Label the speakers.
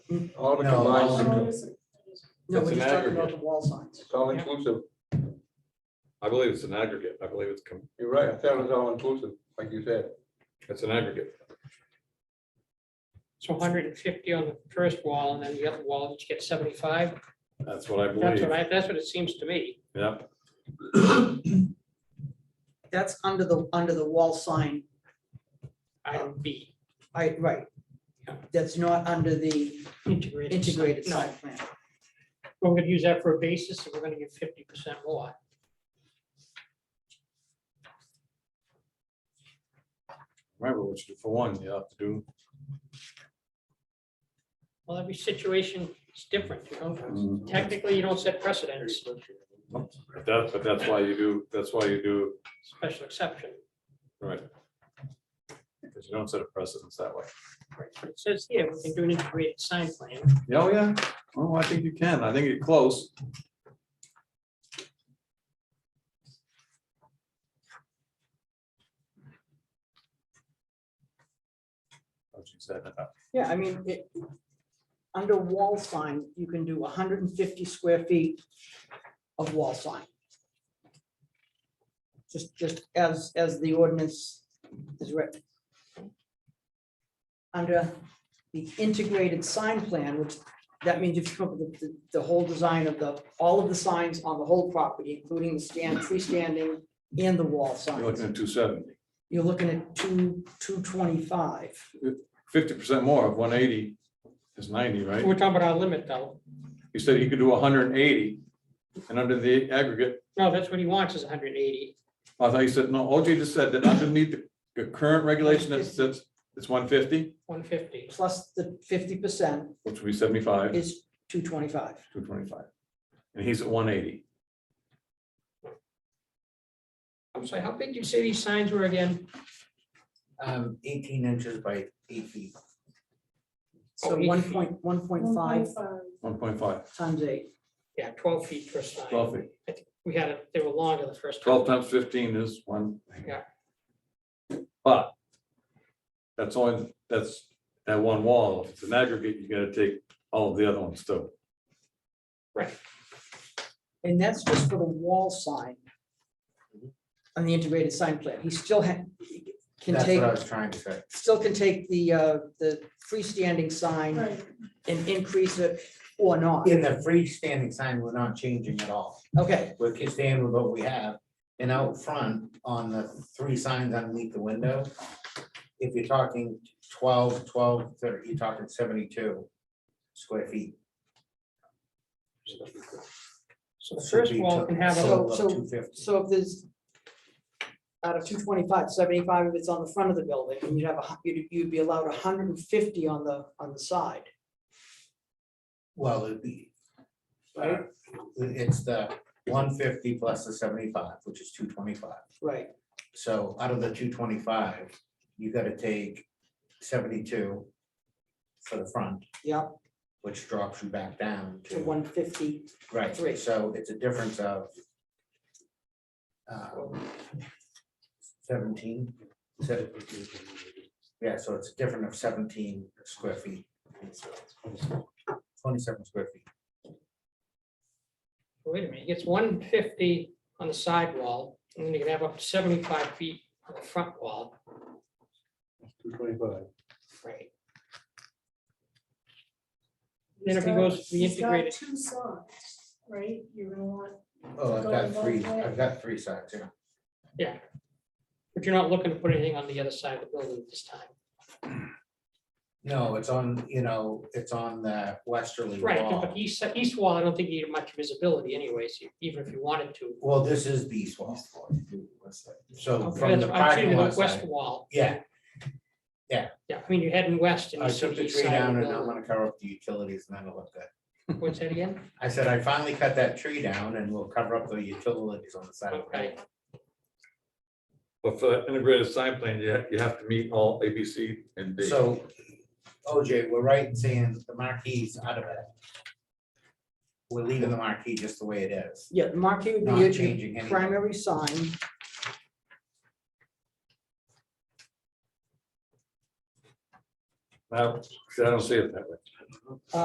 Speaker 1: All the
Speaker 2: No,
Speaker 1: combined,
Speaker 2: all-
Speaker 1: symptoms.
Speaker 3: No,
Speaker 4: That's
Speaker 3: we're
Speaker 4: an
Speaker 3: just talking about the
Speaker 4: aggregate.
Speaker 3: wall signs.
Speaker 1: it's all inclusive.
Speaker 4: I believe it's an aggregate. I believe it's, com-
Speaker 1: You're right. I thought it was all inclusive, like you said.
Speaker 4: it's an aggregate.
Speaker 5: So hundred and fifty on the first wall and then the other wall, you get seventy-five.
Speaker 4: That's what I
Speaker 5: That's what
Speaker 4: believe.
Speaker 5: I, that's what it seems to me.
Speaker 4: Yep.
Speaker 3: That's under the, under the wall sign,
Speaker 5: Item B,
Speaker 3: I, right.
Speaker 5: Yeah.
Speaker 3: That's not under the
Speaker 5: integrated.
Speaker 3: integrated
Speaker 5: No,
Speaker 3: site plan.
Speaker 5: We're gonna use that for a basis and we're gonna get fifty percent more.
Speaker 4: Remember what you do for one, you have to do.
Speaker 5: Well, every situation is different, you
Speaker 4: Mm.
Speaker 5: know. Technically, you don't set precedents,
Speaker 4: But that's, but that's why you do, that's why you do,
Speaker 5: special exception.
Speaker 4: right. Because you don't set a precedence that way.
Speaker 5: It says here, we can do an integrated sign plan.
Speaker 4: Yeah, Oh, yeah. Oh, I think you can. I think you're close. Oh, geez, that-
Speaker 3: Yeah, I mean, it, under wall sign, you can do hundred and fifty square feet of wall sign. Just, just as, as the ordinance is written. Under the integrated sign plan, which, that means you've come up with the, the whole design of the, all of the signs on the whole property, including the stand, freestanding and the wall
Speaker 4: You're looking
Speaker 3: signs.
Speaker 4: at two seventy.
Speaker 3: You're looking at two, two twenty-five.
Speaker 4: Fifty percent more of one eighty is ninety, right?
Speaker 5: We're talking about our limit though.
Speaker 4: You said you could do hundred and eighty, and under the aggregate,
Speaker 5: No, that's what he wants is hundred and eighty.
Speaker 4: I thought you said, no, OJ just said that underneath the- the current regulation that says it's one fifty,
Speaker 5: One fifty.
Speaker 3: plus the fifty percent
Speaker 4: which would be seventy-five,
Speaker 3: is two twenty-five.
Speaker 4: two twenty-five. And he's at one eighty.
Speaker 5: I'm sorry, how big did you say these signs were again?
Speaker 6: Um, eighteen inches by eight feet.
Speaker 3: So
Speaker 5: Oh, eight
Speaker 3: one
Speaker 5: feet.
Speaker 3: point, one point five
Speaker 7: 1.5.
Speaker 4: One point five.
Speaker 3: times eight.
Speaker 5: Yeah, twelve feet per sign.
Speaker 4: 12 feet.
Speaker 5: I think We had it, they were longer the first. time.
Speaker 4: Twelve times fifteen is one.
Speaker 5: Yeah.
Speaker 4: But that's only, that's that one wall. If it's an aggregate, you gotta take all of the other ones too.
Speaker 3: And that's just for the wall sign.
Speaker 6: Mm-hmm.
Speaker 3: On the integrated sign plan. He still ha- can
Speaker 6: That's
Speaker 3: take,
Speaker 6: what I was trying to say.
Speaker 3: still can take the, uh, the freestanding sign
Speaker 7: Right.
Speaker 3: and increase it or not.
Speaker 6: In the freestanding sign, we're not changing at all.
Speaker 3: Okay,
Speaker 6: We're just staying with what we have. And out front on the three signs underneath the window, if you're talking 12, 12, 30, you're talking seventy-two square feet.
Speaker 5: So the first wall can have a,
Speaker 3: So- so-
Speaker 6: Two fifty.
Speaker 3: so if there's out of 225, 75 if it's on the front of the building, and you'd have a, hu- you'd, you'd be allowed hundred and fifty on the, on the side.
Speaker 6: Well, it'd be. uh, It's the one fifty plus the seventy-five, which is two twenty-five.
Speaker 3: Right,
Speaker 6: So out of the two twenty-five, you gotta take seventy-two for the front,
Speaker 3: yeah,
Speaker 6: which drops you back down
Speaker 3: to
Speaker 6: to.
Speaker 3: one fifty.
Speaker 6: Right,
Speaker 3: three.
Speaker 6: so it's a difference of um, seventeen. se- Yeah, so it's a difference of seventeen square feet. Twenty-seven square feet.
Speaker 5: wait a minute, he gets one fifty on the side wall, and then you can have up to seventy-five feet on the front wall.
Speaker 1: Two twenty-five.
Speaker 5: Right. Then if he goes to the
Speaker 7: He's got-
Speaker 5: integrated,
Speaker 7: he's got Two sides, right? You're gonna want,
Speaker 6: Oh, I've got
Speaker 7: Going
Speaker 6: three,
Speaker 7: both ways.
Speaker 6: I've got three sides, yeah.
Speaker 5: but you're not looking to put anything on the other side of the building at this time.
Speaker 6: No, it's on, you know, it's on the westerly
Speaker 5: Right,
Speaker 6: wall.
Speaker 5: but east, east wall, I don't think you need much visibility anyways, e, even if you wanted to.
Speaker 6: Well, this is the east wall. So from
Speaker 5: That's-
Speaker 6: the
Speaker 5: I'm
Speaker 6: parking
Speaker 5: saying the
Speaker 6: lot
Speaker 5: west
Speaker 6: side,
Speaker 5: wall,
Speaker 6: yeah,
Speaker 5: yeah, I mean, you're heading west and
Speaker 6: I
Speaker 5: you see
Speaker 6: took
Speaker 5: the
Speaker 6: the
Speaker 5: east
Speaker 6: tree
Speaker 5: side of
Speaker 6: down
Speaker 5: the
Speaker 6: and I'm
Speaker 5: building.
Speaker 6: gonna cover up the utilities and that'll look good.
Speaker 5: What's that again?
Speaker 6: I said, I finally cut that tree down and we'll cover up the utilities on the side of
Speaker 5: Okay.
Speaker 6: it.
Speaker 4: But for that integrated sign plan, you have, you have to meet all A, B, C, and D.
Speaker 6: So, OJ, we're right in saying the marquee's out of it. We're leaving the marquee just the way it is.
Speaker 3: Yeah, the marquee would be
Speaker 6: Not
Speaker 3: your
Speaker 6: changing
Speaker 3: chief
Speaker 6: anything.
Speaker 3: primary sign.
Speaker 4: Now, see, I don't see it that way.